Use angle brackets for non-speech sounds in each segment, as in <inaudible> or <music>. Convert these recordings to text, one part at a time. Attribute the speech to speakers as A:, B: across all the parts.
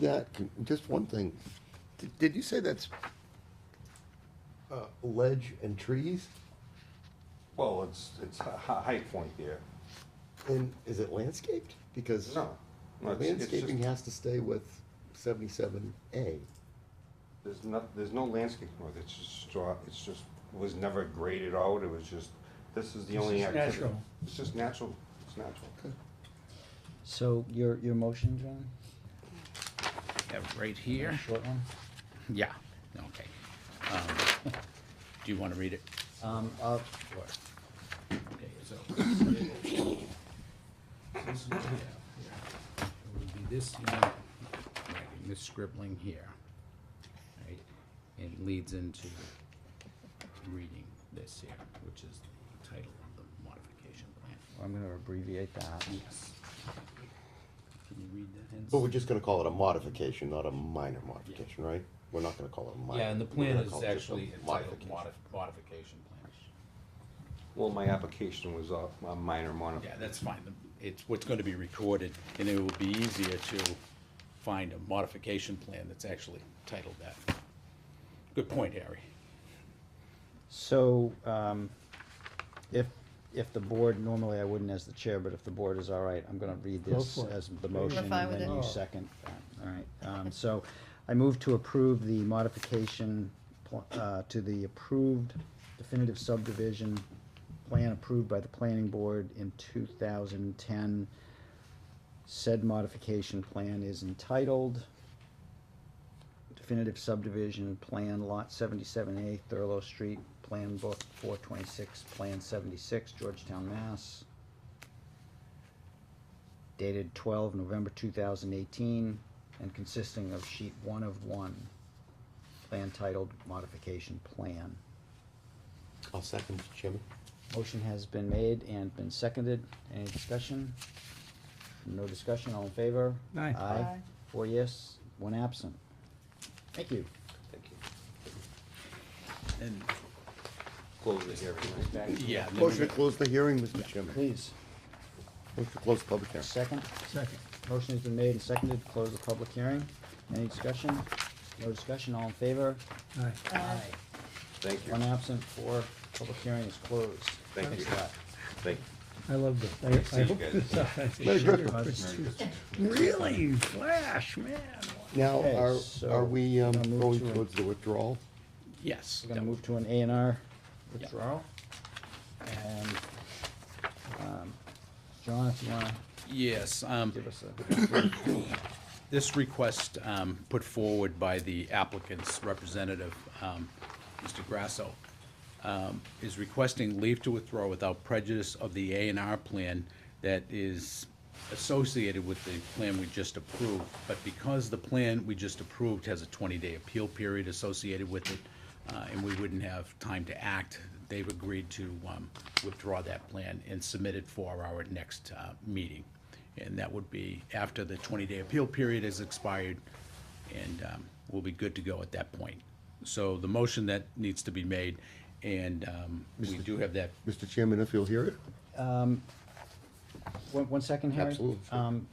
A: That, can- just one thing, Did- did you say that's uh, ledge and trees?
B: Well, it's, it's a hi- high point there.
A: And is it landscaped? Because
B: No. no, it's- it's just-
A: landscaping has to stay with seventy-seven A.
B: There's not, there's no landscape, work, it's just straw, it's just, was never graded out, it was just, this is the
C: This
B: only
C: is
B: activity.
C: natural.
B: It's just natural, it's natural.
D: So your, your motion, John?
E: Yeah, right here.
D: Short one?
E: Yeah, okay. Um, <laughs> Do you want to read it?
D: Um, uh,
E: Sure.
C: Okay, so. This is- yeah, yeah. It would be this, you know,
E: Writing This scribbling here. Right, It leads into reading this here, which is the title of the modification plan.
D: I'm gonna abbreviate that.
E: Yes. Can you read that? Hens?
A: But we're just gonna call it a modification, not a minor modification, right? We're not gonna call it a minor.
E: Yeah, and the
A: we're
E: plan
A: gonna
E: is
A: call it just a
E: actually entitled
A: modification.
E: modif- modification plan.
B: Well, my application was a, a minor modification.
E: Yeah, that's fine. The- It's what's going to be recorded, and it will be easier to find a modification plan that's actually titled that. Good point, Harry.
D: So, um, if, if the board, normally I wouldn't as the chair, but if the board is all right, I'm gonna read this
C: for it.
D: as the motion,
F: fine
D: and
F: with
D: then
F: it.
D: you second. that. All right, um, so I move to approve the modification, pl- uh, to the approved definitive subdivision plan approved by the planning board in two thousand ten. Said modification plan is entitled definitive subdivision plan lot seventy-seven A, Thurlow Street, Plan Book four twenty-six, Plan seventy-six, Georgetown, Mass. Dated twelve November two thousand eighteen, and consisting of sheet one of one, plan titled modification plan.
A: I'll second, Mr. Chairman.
D: Motion has been made and been seconded. Any discussion? No discussion, all in favor?
C: Aye.
F: Aye.
D: Four yes, one absent. Thank you.
B: Thank you.
E: And,
B: Close the hearing, right?
E: yeah. and then we-
A: Motion to close the hearing, Mr. Chairman.
D: Please.
A: Motion to close the public hearing.
D: Second,
C: second.
D: motion has been made and seconded, to close the public hearing. Any discussion? No discussion, all in favor?
C: Aye.
F: Aye.
B: Thank you,
D: One absent, four, public hearing is closed.
B: thank you,
D: Thanks
B: thank you.
C: I love this.
B: See
C: I- I
B: you
C: hope
B: guys.
C: this.
A: Merry
C: <laughs>
D: a lot.
C: It's just- Really, Flash, man.
A: Now,
D: Okay,
A: are,
D: so
A: are we um,
D: I'll move
A: going
D: to a-
A: towards the withdrawal?
E: Yes.
D: We're gonna move to an A and R
E: Yeah.
D: withdrawal. And, um, John, if you wanna
E: Yes, um,
D: give us a.
E: this request, um, put forward by the applicant's representative, um, Mr. Grasso, um, is requesting leave to withdraw without prejudice of the A and R plan that is associated with the plan we just approved. But because the plan we just approved has a twenty-day appeal period associated with it, uh, and we wouldn't have time to act, they've agreed to, um, withdraw that plan and submit it for our next, uh, meeting. And that would be after the 20-day appeal period is expired, and um, we'll be good to go at that point. So the motion that needs to be made, and um, we do have that,
A: Mr. Chairman, if you'll hear it?
D: One, one second, Harry.
A: Absolutely, sure.
D: Um,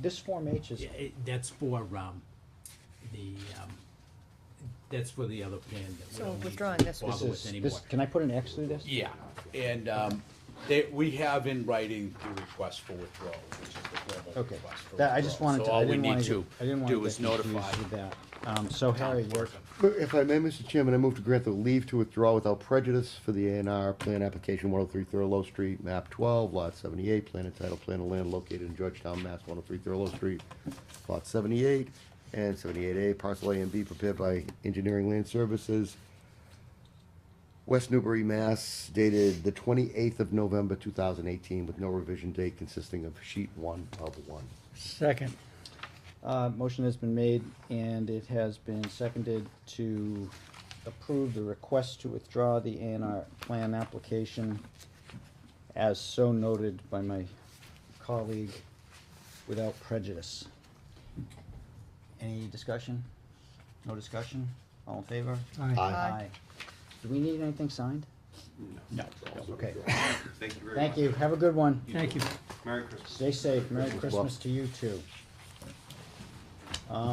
D: This Form H is,
G: Yeah, it, that's for, um, the, um, that's for the other plan that we
F: So
G: don't need
F: withdrawing
G: to
F: this one.
D: this
G: bother with
D: is,
G: anymore.
D: this, can I put an X through this?
E: yeah. And um, they, we have in writing the request for withdrawal, which is the formal
D: Okay,
E: request for
D: that, I just
E: withdrawal.
D: wanted to, I didn't wanna,
E: So all
D: get- I
E: we
D: didn't
E: need to
D: wanna
E: do
D: get
E: is
D: confused with
E: notify.
D: that. Um, so Harry,
E: town
D: we're,
E: clerk.
A: If I may, Mr. Chairman, I move to grant the leave to withdraw without prejudice for the A and R plan application one oh three Thurlow Street, map twelve, lot seventy-eight, plan entitled Plan of Land Located in Georgetown, Mass, one oh three Thurlow Street, lot seventy-eight, and seventy-eight A, parcel A and B prepared by Engineering Land Services, West Newbury, Mass, dated the twenty-eighth of November, two thousand eighteen, with no revision date consisting of sheet one of one.
C: Second.
D: uh, motion has been made and it has been seconded to approve the request to withdraw the A and R plan application as so noted by my colleague without prejudice. Any discussion? No discussion? All in favor?
C: Aye.
D: Do we need anything signed?
E: No,
D: Okay,
B: Thank you very much.
D: thank you, have a good one.
C: Thank you.
B: Merry Christmas.
D: Stay safe, Merry
A: Christmas, Bob.
D: Christmas to you too.